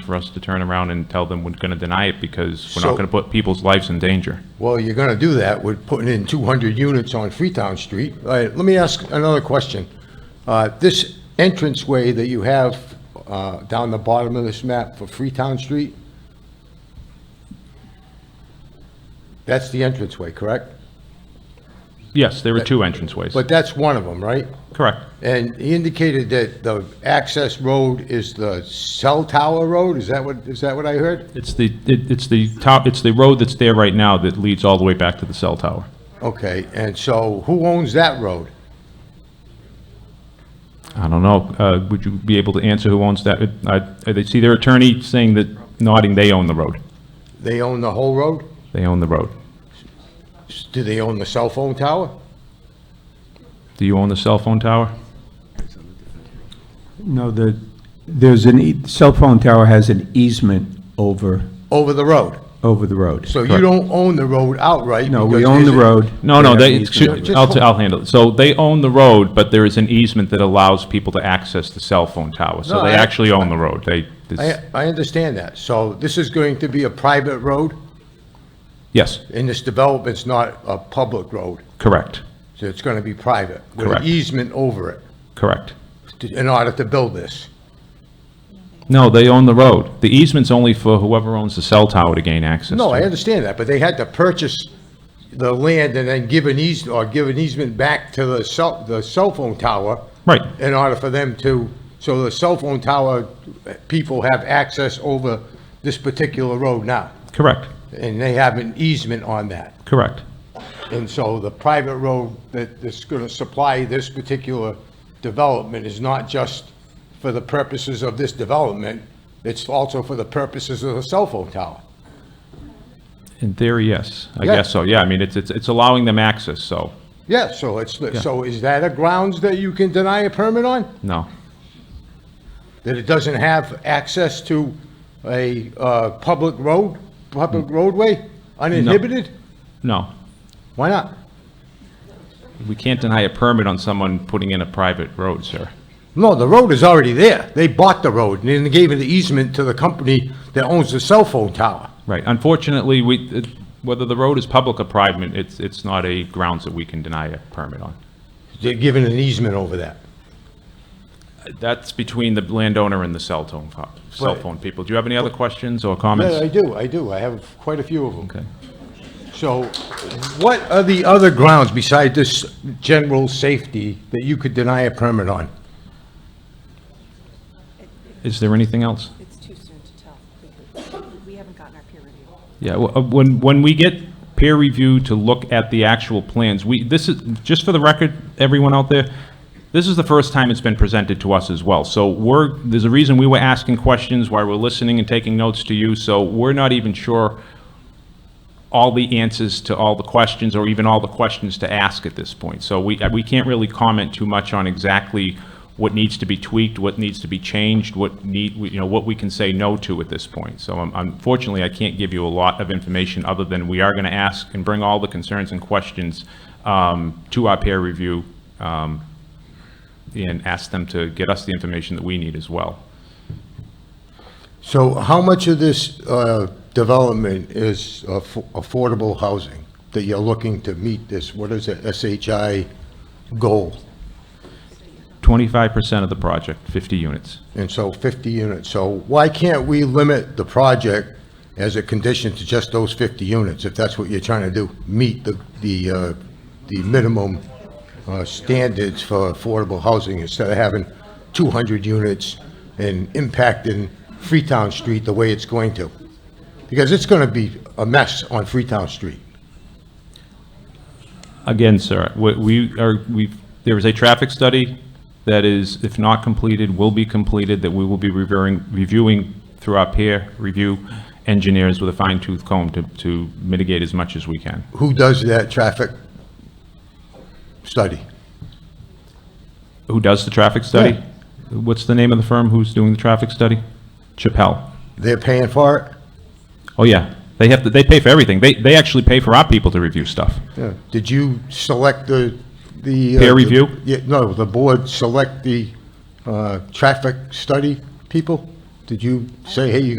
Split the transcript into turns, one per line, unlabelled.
for us to turn around and tell them we're going to deny it because we're
So-
not going to put people's lives in danger.
Well, you're gonna do that with putting in 200 units on Freetown Street. All right, let me ask another question. Uh, This entranceway that you have uh, down the bottom of this map for Freetown Street, that's the entranceway, correct?
Yes, there were two entranceways.
But that's one of them, right?
Correct.
And he indicated that the access road is the cell tower road? Is that what, is that what I heard?
It's the, it- it's the top, it's the road that's there right now that leads all the way back to the cell tower.
Okay, and so who owns that road?
I don't know, uh, would you be able to answer who owns that? I, I see their attorney saying that, nodding, they own the road.
They own the whole road?
They own the road.
Do they own the cell phone tower?
Do you own the cell phone tower?
No, the, there's an, e- cell phone tower has an easement over,
Over the road?
over the road.
So you don't own the road outright?
No, we
because
own the
there's a-
road.
No, no,
have an
they,
easement over
excuse-
it.
I'll, t- I'll handle it. So they own the road, but there is an easement that allows people to access the cell phone tower. So
No,
they
I-
actually own the road. They,
I,
this-
I understand that. So this is going to be a private road,
yes,
and this development's not a public road,
correct,
so it's gonna be private. With
Correct.
an easement over it,
correct.
to- in order to build this.
No, they own the road. The easement's only for whoever owns the cell tower to gain access
No,
to
I
it.
understand that, but they had to purchase the land and then give an eas, or give an easement back to the cell, the cell phone tower.
Right.
In order for them to, so the cell phone tower people have access over this particular road now.
Correct,
and they have an easement on that.
correct,
And so the private road that is going to supply this particular development is not just for the purposes of this development, it's also for the purposes of the cell phone tower.
In theory, yes. I
Yeah.
guess so, yeah. I mean, it's, it's, it's allowing them access, so,
Yeah, so it's, so is that a grounds that you can deny a permit on?
no.
That it doesn't have access to a uh, public road, public roadway, uninhibited?
No,
Why not?
we can't deny a permit on someone putting in a private road, sir.
No, the road is already there. They bought the road, and then they gave it the easement to the company that owns the cell phone tower.
Right, unfortunately, we, it- whether the road is public or private, it's, it's not a grounds that we can deny a permit on.
They're giving an easement over that.
That's between the landowner and the cell phone, fo- cell
Right.
phone people. Do you have any other questions or
Yeah, I
comments?
do, I do. I have quite a few of them.
Okay.
So what are the other grounds besides this general safety that you could deny a permit on?
Is there anything else?
It's too soon to tell. We- We haven't gotten our peer review.
Yeah, w- uh, when, when we get peer review to look at the actual plans, we, this is, just for the record, everyone out there, this is the first time it's been presented to us as well. So we're, there's a reason we were asking questions, why we're listening and taking notes to you, so we're not even sure all the answers to all the questions, or even all the questions to ask at this point. So we, we can't really comment too much on exactly what needs to be tweaked, what needs to be changed, what need, you know, what we can say no to at this point. So um, unfortunately, I can't give you a lot of information other than we are going to ask and bring all the concerns and questions um, to our peer review um, and ask them to get us the information that we need as well.
So how much of this uh, development is aff- affordable housing that you're looking to meet this, what is it, SHI goal?
25% of the project, 50 units.
and so 50 units. So why can't we limit the project as a condition to just those 50 units, if that's what you're trying to do? Meet the, the, uh, the minimum uh, standards for affordable housing instead of having 200 units and impacting Freetown Street the way it's going to? Because it's going to be a mess on Freetown Street.
Again, sir, we- we are, we've, there is a traffic study that is, if not completed, will be completed, that we will be reviewing, reviewing through our peer review engineers with a fine tooth comb to, to mitigate as much as we can.
Who does that traffic study?
Who does the traffic study? What's the name of the firm who's doing the traffic study? Chappelle.
They're paying for it?
Oh, yeah. They have, to. they pay for everything. They, they actually pay for our people to review stuff.
Yeah. Did you select the, the? uh,
Peer review?
Yeah, no, the board select the uh, traffic study people? Did you say, hey, you